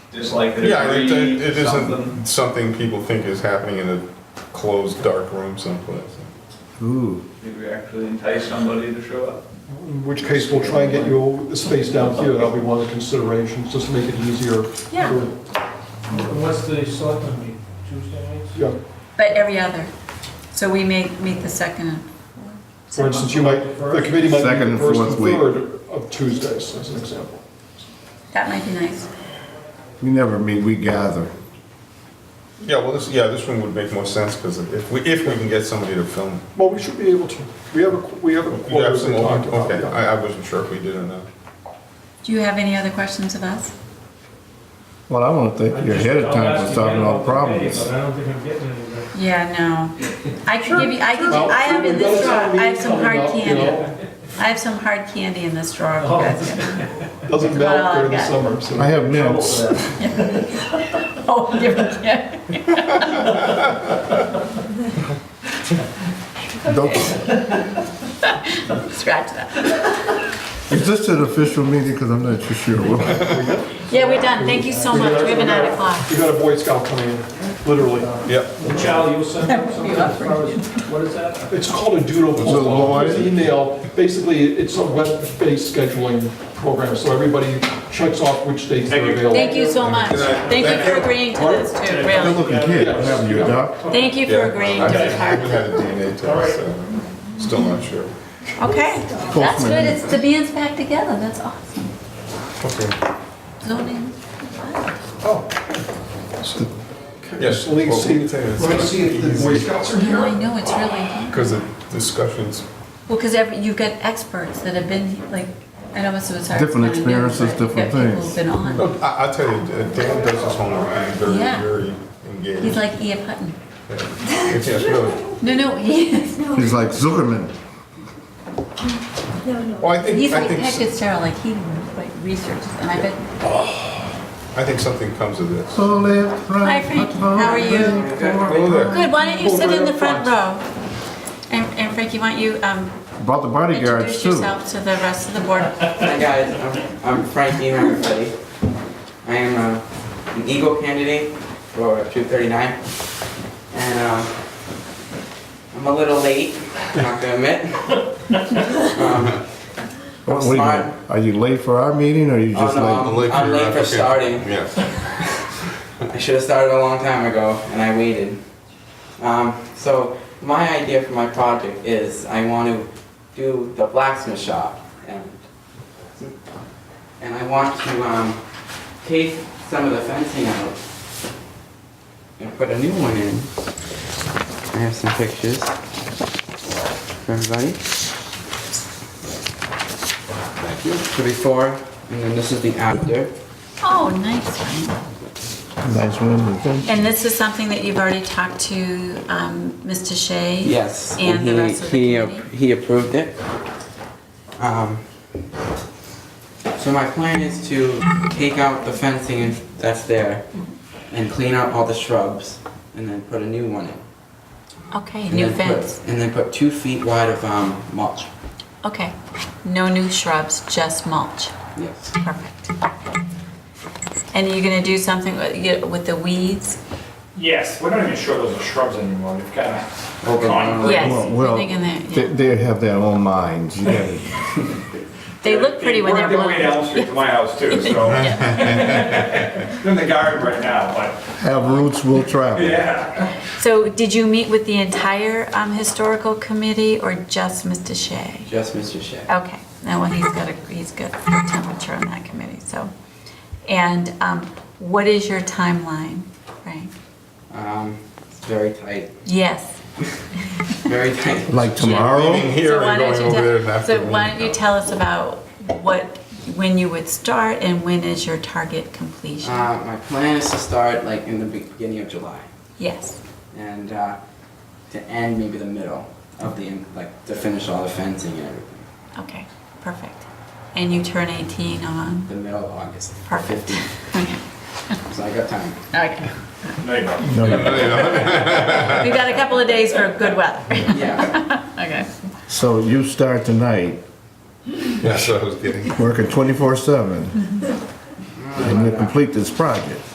just like the Yeah, it, it- debris, it something. isn't something people think is happening in a closed, dark room someplace. Ooh. Did we actually entice somebody to show up? In which case, we'll try and get you a space down here, that'll be one of the considerations, just to make it easier. Yeah. for- And What's the selectmen meeting, Tuesday nights? Yeah, But every other. So we may meet the second and for instance, you might, the committee might Second be the and first and fourth week. third of Tuesdays, as an example. That might be nice. We never meet, we gather. Yeah, well, this, yeah, this room would make more sense, because if we, if we can get somebody to film. Well, we should be able to, we have a, we have a You quarter have some, we talked about. okay, yeah. I, I wasn't sure if we did or not. Do you have any other questions of us? Well, I want to thank you ahead of time for solving all the problems. But I don't think I'm getting anywhere. Yeah, no. I can give you, I can, Well, I have in we've got this a drawer, town I have meeting some coming hard up, you candy. know, I have some hard candy in this drawer. if you guys can- Doesn't Well, melt during the I've summer, so. I have mints. Oh, different candy. Don't- Scratch that. Is this an official meeting? Because I'm not too sure. Yeah, we're done. Thank you so much. We have a nine o'clock. You got a Boy Scout coming in, literally. Yep. Charlie, you'll send out something as far as, what is that? It's called a doodle It's a little poll. It's an email, basically, it's a web-based scheduling program, so everybody checks off which dates they're available. Thank you so much. Good night. Thank you Thank for you. agreeing to this too, Good really. looking kid, haven't you, Doc? Thank you for Yeah. agreeing I to haven't this hard. had a DNA test, so still not sure. Okay, that's Postman. good. It's, the band's back together. That's awesome. Okay. Zoning. Yes. Well, we can see- We're gonna see if the Boy Scouts are No, here. I know, it's really, Because the discussions, well, because every, you've got experts that have been, like, I know it's hard. to Different find new, experiences, but you've got different people things. who've Been No, on. I, I tell you, uh, Dan does his homework, and he's Yeah. very, very engaged. He's like E.F. Hutton. Yeah, yes, really. No, no, he is. He's like Zuckerman. Well, I think, He's I like think, Patrick s- Sarah, like he like researches, and I bet. I think something comes of this. Hi, Hi Frank, how are you? Hello there. Um, Good, why don't you sit in the front row? And, and Frankie, why don't you, um, Brought the bodyguards introduce too. yourself to the rest of the board? Hi guys, I'm- I'm Frankie, everybody. I am uh, an Eagle candidate for 239, and uh, I'm a little late, not gonna admit. Um, Oh, wait a minute. Are you late for our meeting or you Oh, just no, like? I'm your late for application. starting. Yes. I should have started a long time ago, and I waited. Um, so my idea for my project is I want to do the blacksmith shop, and and I want to um, take some of the fencing out and put a new one in. I have some pictures for everybody. Thank you. The before, and then this is the after. Oh, nice one. Nice women. And this is something that you've already talked to um, Mr. Shea? Yes. And the he- rest of the he ap- committee? He approved it. Um, So my plan is to take out the fencing that's there and clean out all the shrubs and then put a new one in. Okay, And new then put- fence. And then put two feet wide of um, mulch. Okay. No new shrubs, just mulch. Yes. Perfect. And you're going to do something with- you- with the weeds? Yes, we're not even sure those are shrubs anymore. We've got a Oh, Overgrown. concrete. Yes. Well, we're well, thinking that, they, yeah. they have their own minds. You gotta- They look pretty when they're They work their way down the blown. street to my house too, so. They're in the garden right now, but, Have roots, will travel. yeah. So did you meet with the entire um, historical committee or just Mr. Shea? Just Mr. Shea. Okay, now, well, he's got a, he's got a temperature on that committee, so. And um, what is your timeline, Frank? Um, It's very tight, Yes. very tight. Like Leaving tomorrow? So here why and don't going you over there tell, and after. so why don't you tell us about what, when you would start and when is your target completion? Uh, My plan is to start like in the beginning of July. Yes, and uh, to end maybe the middle of the like to finish all the fencing and everything. okay, perfect. And you turn 18 on, The middle of August. perfect. 15. Okay, So I got time. okay. No, you don't. We've got a couple of days for good weather. Yeah. Okay. So you start tonight, Yes, I was getting. working twenty-four seven. and you complete this project.